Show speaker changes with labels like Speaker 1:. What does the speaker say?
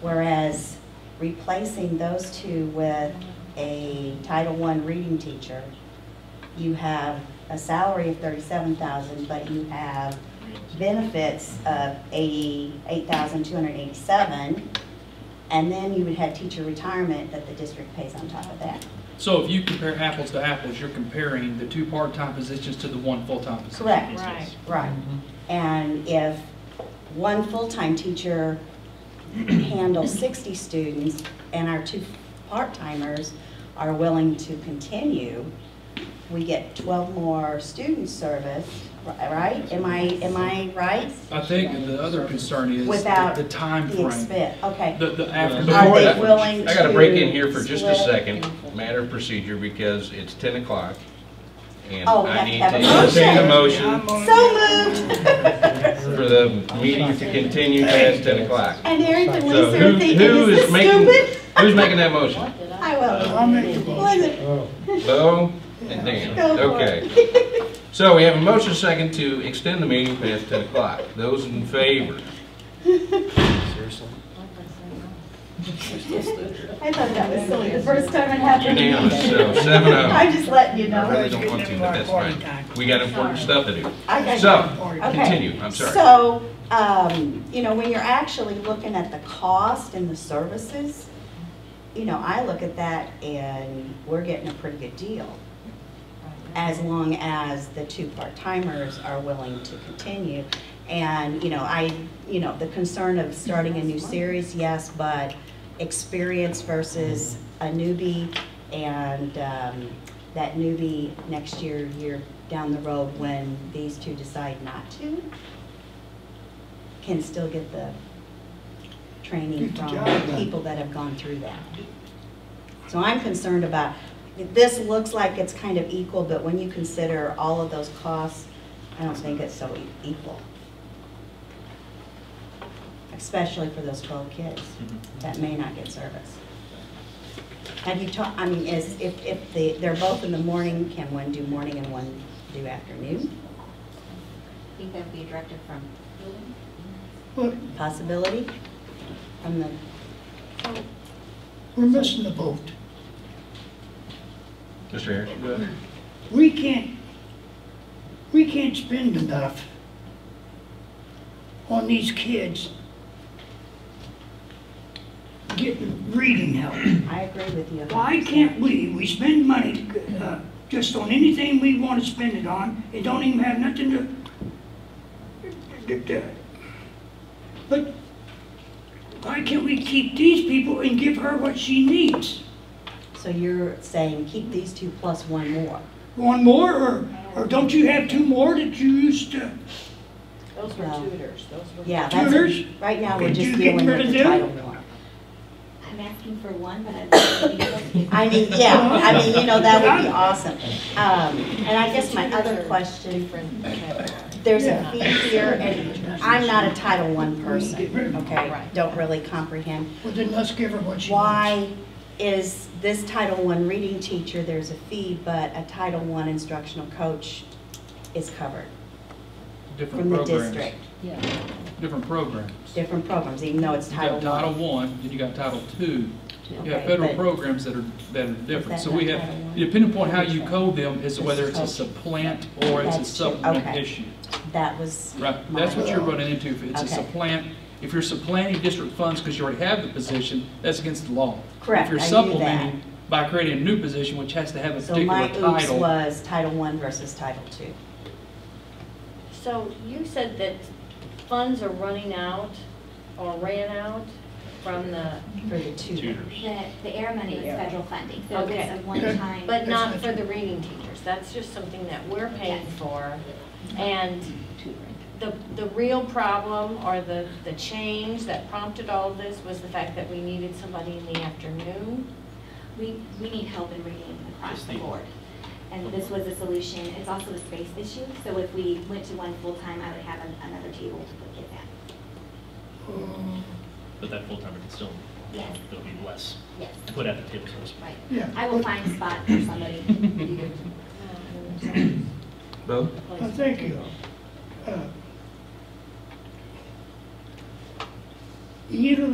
Speaker 1: Whereas replacing those two with a Title I reading teacher, you have a salary of thirty-seven thousand, but you have benefits of eighty-eight thousand two hundred eighty-seven, and then you would have teacher retirement that the district pays on top of that.
Speaker 2: So if you compare apples to apples, you're comparing the two part-time positions to the one full-time position.
Speaker 1: Correct.
Speaker 3: Right.
Speaker 1: Right. And if one full-time teacher handles 60 students and our two part-timers are willing to continue, we get 12 more students serviced, ri- right? Am I, am I right?
Speaker 2: I think the other concern is
Speaker 1: Without
Speaker 2: the time
Speaker 1: The
Speaker 2: frame.
Speaker 1: expense, okay.
Speaker 2: The, the after.
Speaker 4: Before
Speaker 1: Are
Speaker 4: that,
Speaker 1: they willing
Speaker 4: I gotta break in
Speaker 1: to
Speaker 4: here for just a
Speaker 1: split?
Speaker 4: second, matter of procedure, because it's ten o'clock. And
Speaker 1: Oh, we have
Speaker 4: I
Speaker 1: to
Speaker 4: need
Speaker 1: have
Speaker 4: to
Speaker 1: a motion.
Speaker 4: entertain a motion
Speaker 1: So moved!
Speaker 4: for the meeting to continue past ten o'clock.
Speaker 1: And Eric and
Speaker 4: So
Speaker 1: Lisa
Speaker 4: who
Speaker 1: are thinking,
Speaker 4: who
Speaker 1: is this
Speaker 4: is making
Speaker 1: stupid?
Speaker 4: Who's making that motion?
Speaker 1: I will.
Speaker 5: I'll make the
Speaker 1: Was
Speaker 5: motion.
Speaker 1: it?
Speaker 4: Bo and Dan,
Speaker 1: Go for it.
Speaker 4: okay. So we have a motion second to extend the meeting past ten o'clock. Those in favor?
Speaker 1: I thought that was silly, the first time it happened.
Speaker 4: Unanimous, so seven
Speaker 1: I'm
Speaker 4: oh.
Speaker 1: just letting you
Speaker 4: I
Speaker 1: know.
Speaker 4: really don't want to, but that's fine. We got important stuff to do.
Speaker 1: I got you.
Speaker 4: So,
Speaker 1: Okay.
Speaker 4: continue, I'm sorry.
Speaker 1: So, um, you know, when you're actually looking at the cost and the services, you know, I look at that and we're getting a pretty good deal. As long as the two part-timers are willing to continue. And, you know, I, you know, the concern of starting a new series, yes, but experience versus a newbie and, um, that newbie next year, year down the road when these two decide not to, can still get the training
Speaker 5: Get the
Speaker 1: from
Speaker 5: job done.
Speaker 1: people that have gone through that. So I'm concerned about, this looks like it's kind of equal, but when you consider all of those costs, I don't think it's so e- equal. Especially for those twelve kids that may not get service. Have you taught, I mean, is, if, if the, they're both in the morning, can one do morning and one do afternoon?
Speaker 6: I think that would be directed from building.
Speaker 5: But
Speaker 1: Possibility from the,
Speaker 5: we're missing the boat.
Speaker 4: Mr. Harris?
Speaker 5: We can't, we can't spend enough on these kids getting reading help.
Speaker 1: I agree with you.
Speaker 5: Why can't we, we spend money uh, just on anything we want to spend it on, it don't even have nothing to, to- to- but why can't we keep these people and give her what she needs?
Speaker 1: So you're saying keep these two plus one more?
Speaker 5: One more, or, or don't you have two more that you used to?
Speaker 7: Those were
Speaker 1: Well,
Speaker 7: tutors, those were.
Speaker 1: Yeah,
Speaker 5: Tutors?
Speaker 1: that's, right now, we're
Speaker 5: Could
Speaker 1: just
Speaker 5: you get
Speaker 1: dealing
Speaker 5: rid
Speaker 1: with
Speaker 5: of
Speaker 1: the
Speaker 5: them?
Speaker 1: Title one.
Speaker 6: I'm asking for one, but I think it'd be
Speaker 1: I mean, yeah, I mean, you know, that would be awesome. Um, and I guess my other question,
Speaker 7: Different categories.
Speaker 1: there's a
Speaker 5: Yeah.
Speaker 1: fee here, and I'm not a Title one person, okay?
Speaker 7: Right.
Speaker 1: Don't really comprehend.
Speaker 5: Well, then let's give her what she wants.
Speaker 1: Why is this Title I reading teacher, there's a fee, but a Title I instructional coach is covered
Speaker 2: Different
Speaker 1: from the
Speaker 2: programs.
Speaker 1: district?
Speaker 2: Different programs. You
Speaker 1: Different programs, even though it's
Speaker 2: got
Speaker 1: Title
Speaker 2: Title
Speaker 1: I.
Speaker 2: One, then you got Title Two. You have
Speaker 1: Okay,
Speaker 2: federal
Speaker 1: but-
Speaker 2: programs that are, that are different.
Speaker 1: that
Speaker 2: So we
Speaker 1: not
Speaker 2: have,
Speaker 1: Title I?
Speaker 2: depending upon how you code them, is whether it's a
Speaker 1: It's code.
Speaker 2: supplant or it's
Speaker 1: That's
Speaker 2: a
Speaker 1: true.
Speaker 2: supplement
Speaker 1: Okay.
Speaker 2: issue.
Speaker 1: That was
Speaker 2: Right, that's what
Speaker 1: my-
Speaker 2: you're running into. If it's a
Speaker 1: Okay.
Speaker 2: supplant, if you're supplanting district funds because you already have the position, that's against the law.
Speaker 1: Correct,
Speaker 2: If you're
Speaker 1: I knew
Speaker 2: supplementing by creating a new position, which has to have a
Speaker 1: So
Speaker 2: particular
Speaker 1: my oops
Speaker 2: title.
Speaker 1: was Title I versus Title II.
Speaker 8: So you said that funds are running out or ran out from the,
Speaker 1: for the tutor.
Speaker 6: The, the air money is federal funding, so
Speaker 8: Okay.
Speaker 6: it's a one-time.
Speaker 8: but not for the reading teachers. That's just something that we're paying for. And the, the real problem or the, the change that prompted all this was the fact that we needed somebody in the afternoon.
Speaker 6: We, we need help in reading across the board. And this was a solution. It's also a space issue, so if we went to one full-time, I would have an- another table to put kids at.
Speaker 5: Oh.
Speaker 9: But that full-timer can still,
Speaker 6: Yes.
Speaker 9: there'll be less
Speaker 6: Yes,
Speaker 9: to put at the table, so to speak.
Speaker 6: right.
Speaker 5: Yeah.
Speaker 6: I will find a spot for somebody.
Speaker 4: Bo?
Speaker 5: Well, thank you. Uh, You know,